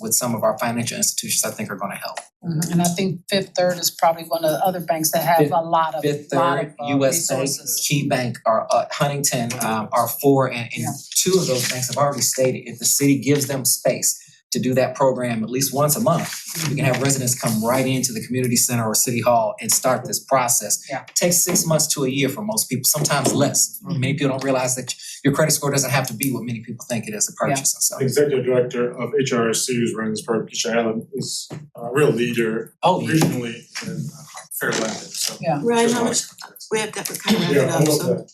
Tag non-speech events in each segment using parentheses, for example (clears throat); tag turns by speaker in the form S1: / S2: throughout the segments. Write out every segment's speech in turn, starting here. S1: with some of our financial institutions, I think are gonna help.
S2: Mhm, And I think Fifth Third is probably one of the other banks that have a lot of,
S1: Fifth
S2: lot
S1: Third,
S2: of uh,
S1: US Bank,
S2: resources.
S1: Key Bank, or uh Huntington, um are four and and
S2: Yeah.
S1: two of those banks have already stated, if the city gives them space to do that program at least once a month, we can have residents come right into the community center or city hall and start this process.
S2: Yeah. Mm-hmm.
S1: Takes six months to a year for most people, sometimes less. Many people don't realize that your credit score doesn't have to be what many people think it is to purchase and so.
S3: The Executive Director of HRSU's Rendsburg, Keisha Allen, is uh, a real leader
S1: Oh, yeah.
S3: regionally in uh, Fairland, so.
S2: Yeah.
S4: Ryan,
S3: there's a
S4: how
S3: lot
S4: much,
S3: of context.
S4: we have got, we're kind of
S3: Yeah,
S4: wrapping
S3: I
S4: up,
S3: love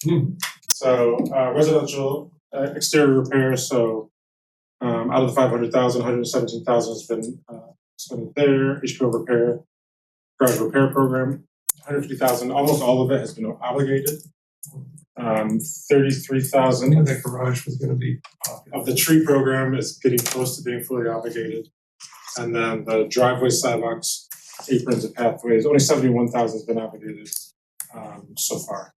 S4: so,
S3: that. So uh residential uh, exterior repairs, so um out of the five hundred thousand, hundred seventeen thousand has been uh spent there, HPO repair, garage repair program, hundred fifty thousand, almost all of it has been obligated. Um thirty-three thousand
S5: knew that garage was gonna be popular.
S3: of the tree program is getting close to being fully obligated. And then the driveway sidewalks, aprons and pathways, only seventy-one thousand has been obligated um so far.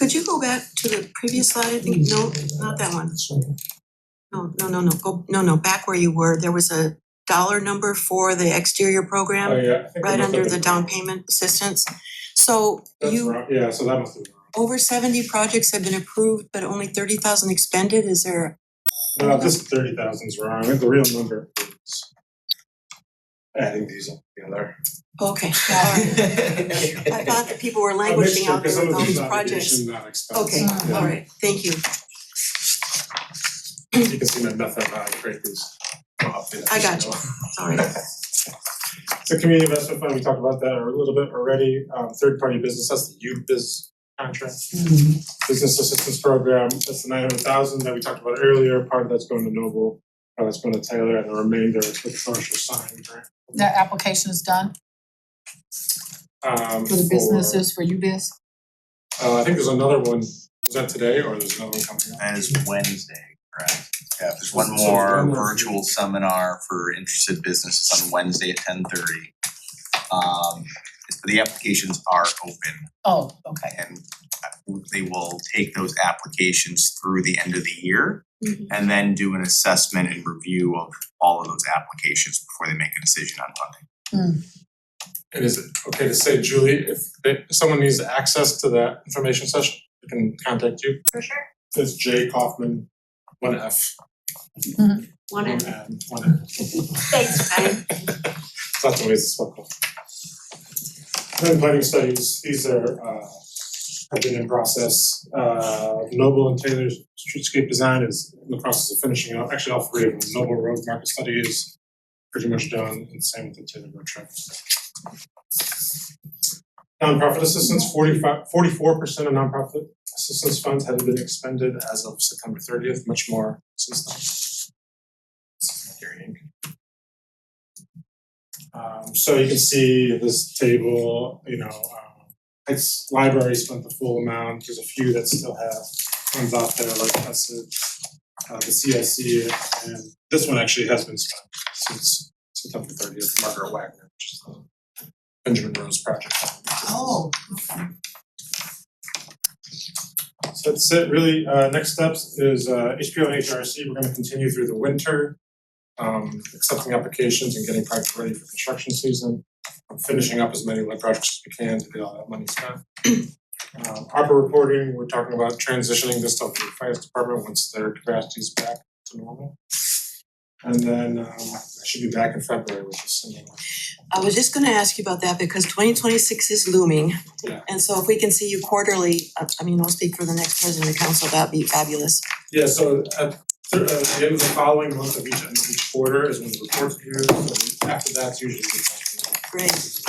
S4: could you go back to the previous slide, I think, no, not that one, no, no, no, no, go, no, no, back where you were, there was a dollar number for the exterior
S3: Oh,
S4: program,
S3: yeah, I think
S4: Um, right
S3: I must
S4: under
S3: have-
S4: the down payment assistance. So
S3: That's
S4: you,
S3: wrong, yeah, so that must have been wrong.
S4: over seventy projects have been approved, but only thirty thousand expended, is there,
S3: No, this thirty thousand is wrong, the real number is adding these up together.
S4: oh, okay, (laughs) alright. I thought that people were
S3: A
S4: languishing
S3: mixture,
S4: out
S3: 'cause
S4: there
S3: some
S4: with
S3: of
S4: all
S3: these
S4: these projects.
S3: obligation, not expense.
S4: Okay,
S2: Yeah.
S4: alright, thank you,
S3: Yeah, You can see my method, how I create these.
S4: I got you. sorry.
S3: The community investment fund, we talked about that a little bit already, um third party business, that's the U biz contract.
S2: Mhm.
S3: Business assistance program, that's the nine hundred thousand that we talked about earlier, part of that's going to Noble, part of that's going to Taylor, and the remainder is the commercial sign grant.
S2: That application is done
S3: Um
S2: for the
S3: for-
S2: businesses, for you biz?
S3: Uh I think there's another one, was that today or there's another one coming up?
S6: That is Wednesday, correct? Yeah, there's one
S3: So it's
S6: more
S3: one more.
S6: virtual seminar for interested businesses on Wednesday at ten thirty. Um, the applications are open
S2: Oh, okay.
S6: and they will take those applications through the end of the year
S4: Mhm.
S6: and then do an assessment and review of all of those applications before they make a decision on funding.
S3: And is it okay to say, Julie, if they, if someone needs access to that information session, they can contact you?
S7: For sure.
S3: That's Jay Kaufman, one F,
S7: One
S3: one
S7: in,
S3: N, one F,
S7: thanks, Ben.
S3: It's not the way it's spelled. Then planning studies, these are uh have been in process, uh Noble and Taylor's streetscape design is in the process of finishing up, actually all three of them, Noble Road Market Study is pretty much done, and same with the Taylor Road Trip. Nonprofit assistance, forty-five, forty-four percent of nonprofit assistance funds have been expended as of September thirtieth, much more since then. This is Gary Inc. Um so you can see this table, you know, um it's library spent the full amount, there's a few that still have ones out there like Hesed, uh the CSC and this one actually has been spent since September thirtieth, Margaret Wagner, which is the Benjamin Rose project.
S2: Oh,
S3: So that's it, really, uh next steps is uh HBO and HRC, we're gonna continue through the winter. Um accepting applications and getting projects ready for construction season. Finishing up as many lab projects as we can to get all that money spent. (clears throat) Um ARPA reporting, we're talking about transitioning this stuff to the finance department once their capacity is back to normal. And then um I should be back in February with this thing.
S4: I was just gonna ask you about that because twenty twenty-six is looming.
S3: Yeah.
S4: And so if we can see you quarterly, I I mean, I'll speak for the next president of council, that'd be fabulous.
S3: Yeah, so at thir- uh, the end of the following month of each, end of each quarter is when the report's due, and after that's usually the time.
S4: Great.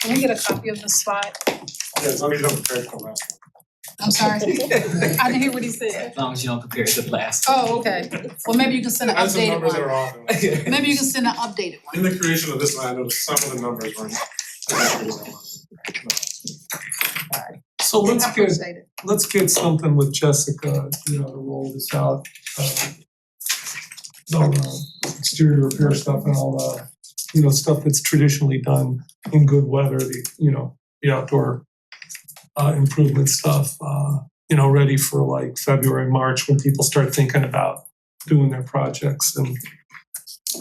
S2: can we get a copy of the slide?
S3: Yeah, as long as you don't prepare for the last one.
S2: I'm sorry, I didn't hear what he
S1: (laughs)
S2: said.
S1: As long as you don't compare it to the last.
S2: Oh, okay. Well, maybe you can send an
S3: I had some
S2: updated
S3: numbers that
S2: one.
S3: are off. and-
S1: (laughs)
S2: Maybe you can send an updated one.
S3: In the creation of this line, I noticed some of the numbers were. not-
S5: So let's
S2: I
S5: get,
S2: appreciate it.
S5: let's get something with Jessica, you know, to roll this out. uh, The uh, exterior repair stuff and all the, you know, stuff that's traditionally done in good weather, the, you know, the outdoor uh, improvement stuff, uh, you know, ready for like February, March, when people start thinking about doing their projects and